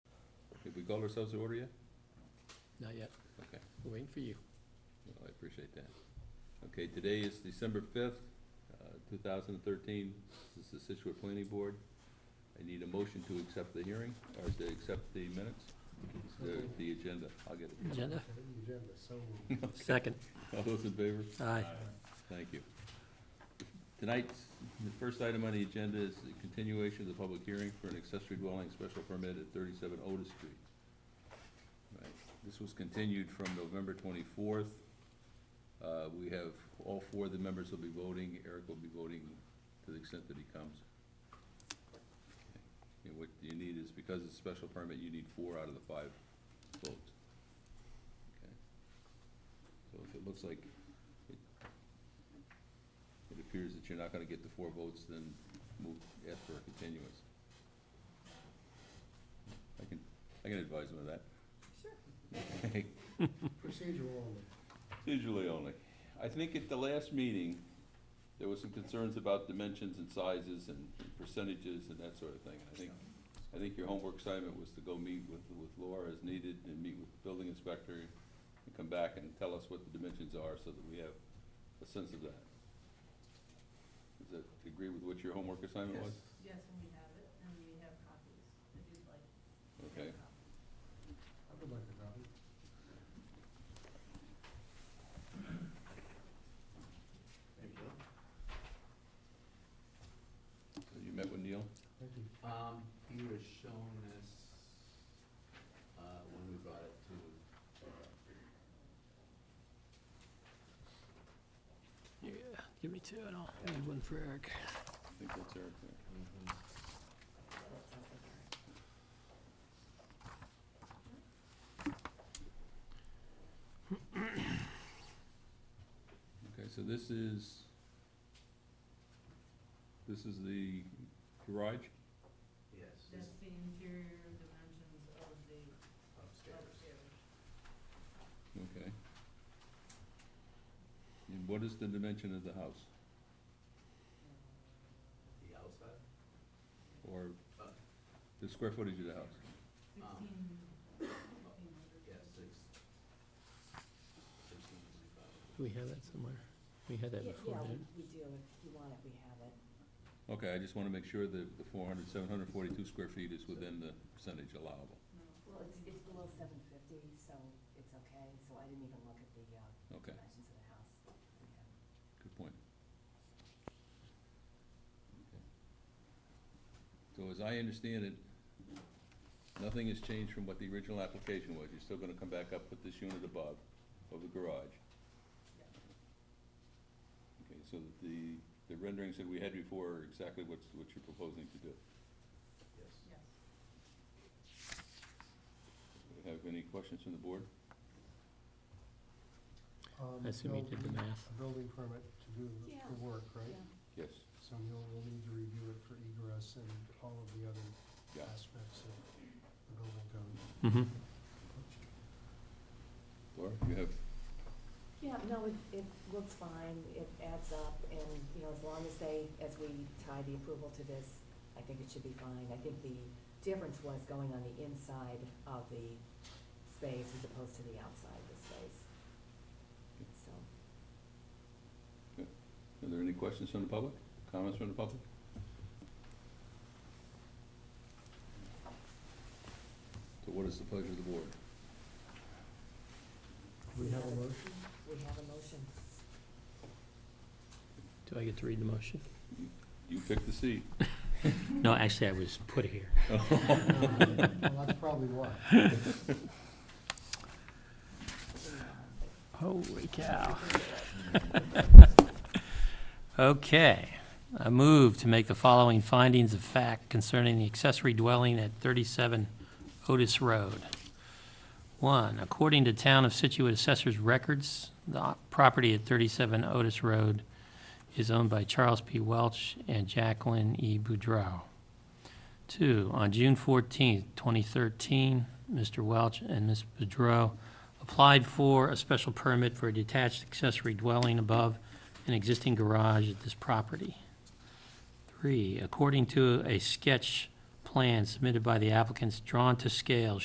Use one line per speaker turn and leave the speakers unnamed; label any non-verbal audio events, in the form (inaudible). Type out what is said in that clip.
called ourselves to order yet?
Not yet.
Okay,
We're waiting for you.
well, I appreciate that. Okay, today is December fifth, uh, two thousand and thirteen. This is the Situate Planning Board. I need a motion to accept the hearing, or to accept the minutes, the, the agenda. I'll get it.
Agenda?
Agenda, so moved.
Second.
All those in favor?
Aye.
Thank you. Tonight's, the first item on the agenda is the continuation of the public hearing for an accessory dwelling special permit at thirty-seven Otis Street. Right, This was continued from November twenty-fourth. Uh, we have, all four of the members will be voting, Eric will be voting to the extent that he comes. And what you need is, because it's a special permit, you need four out of the five votes. Okay. So if it looks like it appears that you're not gonna get the four votes, then move, ask for a continuance. I can, I can advise them of that. (laughs) Sure.
Procedural only.
Usually only. I think at the last meeting, there was some concerns about dimensions and sizes and percentages and that sort of thing. I think, I think your homework assignment was to go meet with, with Laura as needed and meet with the building inspector and come back and tell us what the dimensions are so that we have a sense of that. Does that agree with what your homework assignment was?
Yes, and we have it, and we have copies, if you'd like.
Okay.
I would like a copy.
So You met with Neil?
Thank you.
Um, he was shown this, uh, when we brought it to, uh,
Yeah, give me two and I'll need one for Eric.
I think that's Eric there. Okay, so this is, this is the garage?
yes, this
That's the interior dimensions of the
upstairs.
upstairs.
Okay. And what is the dimension of the house?
The outside,
Or
Uh.
the square footage of the house?
Sixteen, sixteen
Um, yeah,
hundred.
six, sixteen twenty-five.
Do we have that somewhere? We had that
Yeah,
before,
yeah,
didn't
we do, if you want it, we have it.
Okay, I just wanna make sure that the four hundred, seven hundred forty-two square feet is within the percentage
No,
allowable.
Well, it's, it's below seven fifty, so it's okay, so I didn't even look at the, uh,
Okay,
dimensions of the house. Yeah.
good point. Okay. So as I understand it, nothing has changed from what the original application was. You're still gonna come back up with this unit above, of the garage. Okay, so the, the renderings that we had before are exactly what's, what you're proposing to do.
yes.
Yes.
Do we Have any questions from the board?
Um,
I assume you
they'll
did the
need
math.
A building permit to do the,
Yeah.
the work, right?
Yes.
So you'll, we'll need to review it for egress and all of the other
Yeah.
aspects of the building code.
we? Mm-hmm.
Laura, you have,
Yeah, no, it, it looks fine, it adds up, and, you know, as long as they, as we tie the approval to this, I think it should be fine. I think the difference was going on the inside of the space as opposed to the outside of the space. So,
are there any questions from the public? Comments from the public? So what is the pleasure of the board?
We have a motion?
we have a motion.
Do I get to read the motion?
You pick the seat.
No, actually, I was put here.
Um, Well, that's probably why.
Holy cow. (laughs) Okay. I move to make the following findings of fact concerning the accessory dwelling at 37 Otis Road. One, according to Town of Situate Assessor's records, the o- property at 37 Otis Road is owned by Charles P. Welch and Jacqueline E. Boudreau. Two, on June 14, 2013, Mr. Welch and Ms. Boudreau applied for a special permit for a detached accessory dwelling above an existing garage at this property. Three, according to a sketch plan submitted by the applicants drawn to scale